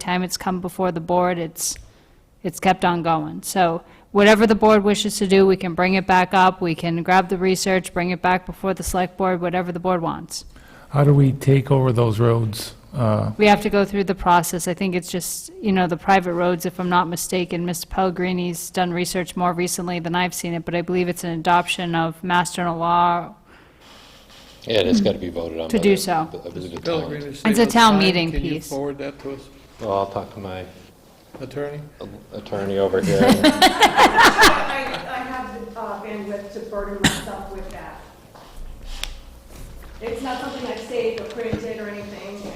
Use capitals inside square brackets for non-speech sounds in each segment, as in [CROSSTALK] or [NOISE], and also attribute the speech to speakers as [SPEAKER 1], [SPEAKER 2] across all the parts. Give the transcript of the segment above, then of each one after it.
[SPEAKER 1] time it's come before the board, it's, it's kept on going. So whatever the board wishes to do, we can bring it back up, we can grab the research, bring it back before the select board, whatever the board wants.
[SPEAKER 2] How do we take over those roads? Uh,
[SPEAKER 1] We have to go through the process. I think it's just, you know, the private roads, if I'm not mistaken, Mr. Pellegrini's done research more recently than I've seen it, but I believe it's an adoption of mass general law.
[SPEAKER 3] Yeah, that's got to be voted on.
[SPEAKER 1] To
[SPEAKER 3] by
[SPEAKER 1] do
[SPEAKER 3] the-
[SPEAKER 1] so.
[SPEAKER 3] I believe the
[SPEAKER 4] Pellegrini
[SPEAKER 3] town.
[SPEAKER 4] saved
[SPEAKER 1] a
[SPEAKER 4] us
[SPEAKER 1] town
[SPEAKER 4] time.
[SPEAKER 1] meeting
[SPEAKER 4] Can you
[SPEAKER 1] piece.
[SPEAKER 4] forward that to us,
[SPEAKER 3] Well, I'll talk to my
[SPEAKER 4] attorney?
[SPEAKER 3] attorney over here.
[SPEAKER 5] I, I have the uh, bandwidth to burden myself with that. It's not something I've saved or printed or anything, and.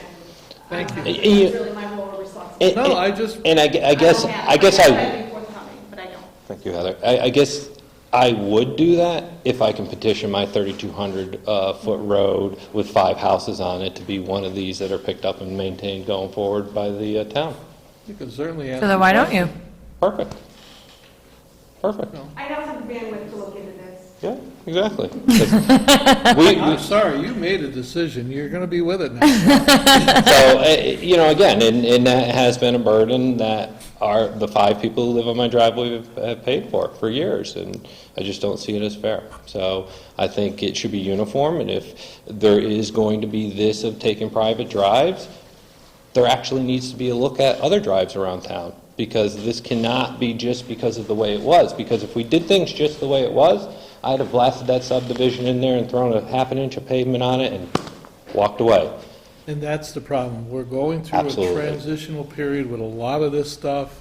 [SPEAKER 4] Thank you.
[SPEAKER 5] um,
[SPEAKER 3] Y- you-
[SPEAKER 5] It's really my role or responsibility.
[SPEAKER 3] [LAUGHS] And-
[SPEAKER 4] No, I just-
[SPEAKER 3] And I gue- I guess,
[SPEAKER 5] don't have
[SPEAKER 3] I
[SPEAKER 5] it.
[SPEAKER 3] guess
[SPEAKER 5] wish
[SPEAKER 3] I,
[SPEAKER 5] I'd be forthcoming, but I don't.
[SPEAKER 3] thank you, Heather. I, I guess I would do that if I can petition my 3,200-foot road with five houses on it to be one of these that are picked up and maintained going forward by the uh, town.
[SPEAKER 4] You can certainly ask.
[SPEAKER 6] So then why don't you?
[SPEAKER 3] Perfect. Perfect.
[SPEAKER 5] I don't have the bandwidth to look into this.
[SPEAKER 3] Yeah, exactly. [LAUGHS] 'Cause we- we-
[SPEAKER 4] I'm sorry, you made a decision, you're going to be with
[SPEAKER 1] [LAUGHS]
[SPEAKER 4] it now.
[SPEAKER 3] So, uh, you know, again, and, and that has been a burden that our, the five people who live on my driveway have- have paid for, for years, and I just don't see it as fair. So I think it should be uniform, and if there is going to be this of taking private drives, there actually needs to be a look at other drives around town, because this cannot be just because of the way it was, because if we did things just the way it was, I'd have blasted that subdivision in there and thrown a half an inch of pavement on it and walked away.
[SPEAKER 4] And that's the problem, we're going through a
[SPEAKER 3] Absolutely.
[SPEAKER 4] transitional period with a lot of this stuff.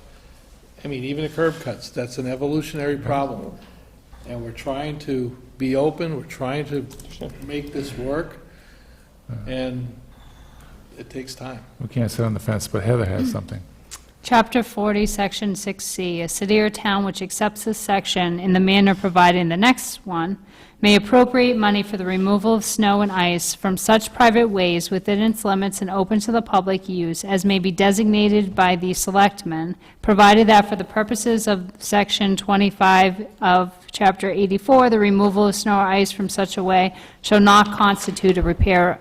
[SPEAKER 4] I mean, even the curb cuts, that's an evolutionary problem. And we're trying to be open, we're trying to make this work, and it takes time.
[SPEAKER 2] We can't sit on the fence, but Heather has something.
[SPEAKER 1] Chapter 40, Section 6C, a city or town which accepts this section in the manner provided in the next one may appropriate money for the removal of snow and ice from such private ways within its limits and open to the public use as may be designated by the selectmen, provided that for the purposes of Section 25 of Chapter 84, the removal of snow or ice from such a way shall not constitute a repair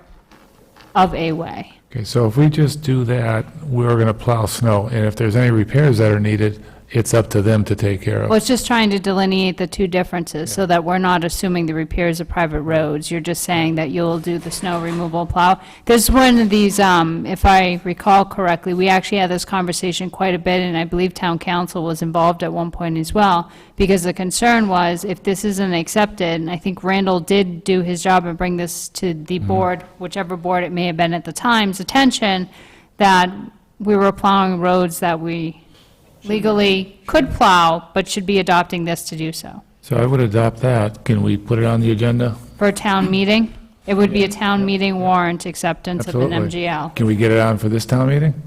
[SPEAKER 1] of a way.
[SPEAKER 2] Okay, so if we just do that, we're going to plow snow, and if there's any repairs that are needed, it's up to them to take care
[SPEAKER 1] Well,
[SPEAKER 2] of.
[SPEAKER 1] it's just trying to delineate the two differences, so that we're not assuming the repairs of private roads. You're just saying that you'll do the snow removal plow. There's one of these, um, if I recall correctly, we actually had this conversation quite a bit, and I believe town council was involved at one point as well, because the concern was, if this isn't accepted, and I think Randall did do his job and bring this to the board, whichever board it may have been at the time's attention, that we were plowing roads that we legally could plow, but should be adopting this to do so.
[SPEAKER 2] So I would adopt that. Can we put it on the agenda?
[SPEAKER 1] For a town meeting, it would be a town meeting warrant acceptance of an
[SPEAKER 2] Absolutely.
[SPEAKER 1] MGL.
[SPEAKER 2] Can we get it on for this town meeting?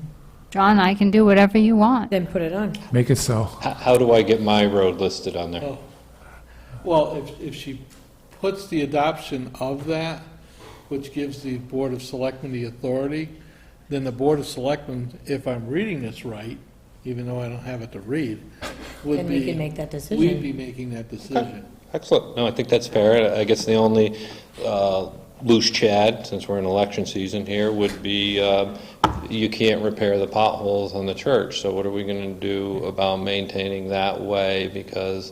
[SPEAKER 1] John, I can do whatever you want.
[SPEAKER 6] Then put it on.
[SPEAKER 2] Make it so.
[SPEAKER 3] How, how do I get my road listed on there?
[SPEAKER 4] Well, if, if she puts the adoption of that, which gives the Board of Selectmen the authority, then the Board of Selectmen, if I'm reading this right, even though I don't have it to read, would be...
[SPEAKER 6] Then we can make that decision.
[SPEAKER 4] We'd be making that decision.
[SPEAKER 3] Excellent. No, I think that's fair. I guess the only uh, loose chad, since we're in election season here, would be uh, you can't repair the potholes on the church. So what are we going to do about maintaining that way? Because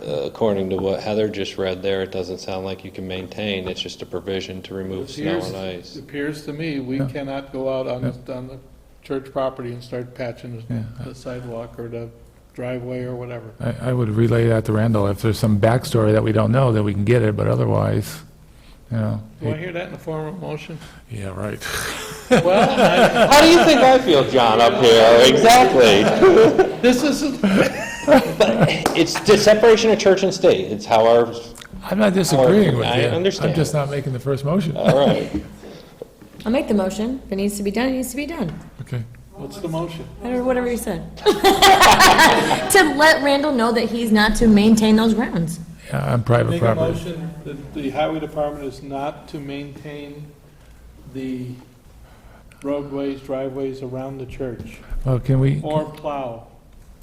[SPEAKER 3] uh, according to what Heather just read there, it doesn't sound like you can maintain. It's just a provision to remove snow
[SPEAKER 4] Appears-
[SPEAKER 3] and ice.
[SPEAKER 4] Appears to me, we cannot go out on, the- on the church property and start patching
[SPEAKER 2] Yeah.
[SPEAKER 4] the sidewalk or the driveway or whatever.
[SPEAKER 2] I, I would relay that to Randall. If there's some backstory that we don't know, then we can get it, but otherwise, you know.
[SPEAKER 4] Do I hear that in the form of a motion?
[SPEAKER 2] Yeah, right.
[SPEAKER 3] [LAUGHS] How do you think I feel, John, up here? Exactly.
[SPEAKER 4] This isn't,
[SPEAKER 3] It's the separation of church and state. It's how our,
[SPEAKER 2] [LAUGHS] I'm not disagreeing with you.
[SPEAKER 3] I understand.
[SPEAKER 2] I'm just not making the first motion.
[SPEAKER 3] all right.
[SPEAKER 6] I'll make the motion. If it needs to be done, it needs to be done.
[SPEAKER 2] Okay.
[SPEAKER 4] what's the motion?
[SPEAKER 6] I don't know, whatever you said. To let Randall know that he's not to maintain those grounds.
[SPEAKER 2] Yeah, Uh, on private
[SPEAKER 4] Make a
[SPEAKER 2] property.
[SPEAKER 4] motion that the highway department is not to maintain the roadways, driveways around the church,
[SPEAKER 2] Well, can we,
[SPEAKER 4] or plow.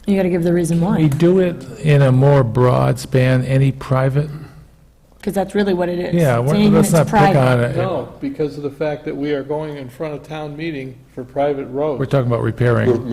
[SPEAKER 6] You gotta give the reason
[SPEAKER 2] we
[SPEAKER 6] why.
[SPEAKER 2] do it in a more broad span, any private?
[SPEAKER 6] because that's really what it is.
[SPEAKER 2] Yeah,
[SPEAKER 6] It's
[SPEAKER 2] we're-
[SPEAKER 6] anything
[SPEAKER 2] let's not
[SPEAKER 6] that's
[SPEAKER 2] pick
[SPEAKER 6] private.
[SPEAKER 2] on it.
[SPEAKER 4] No, because of the fact that we are going in front of town meeting for private roads.
[SPEAKER 2] We're talking about repairing.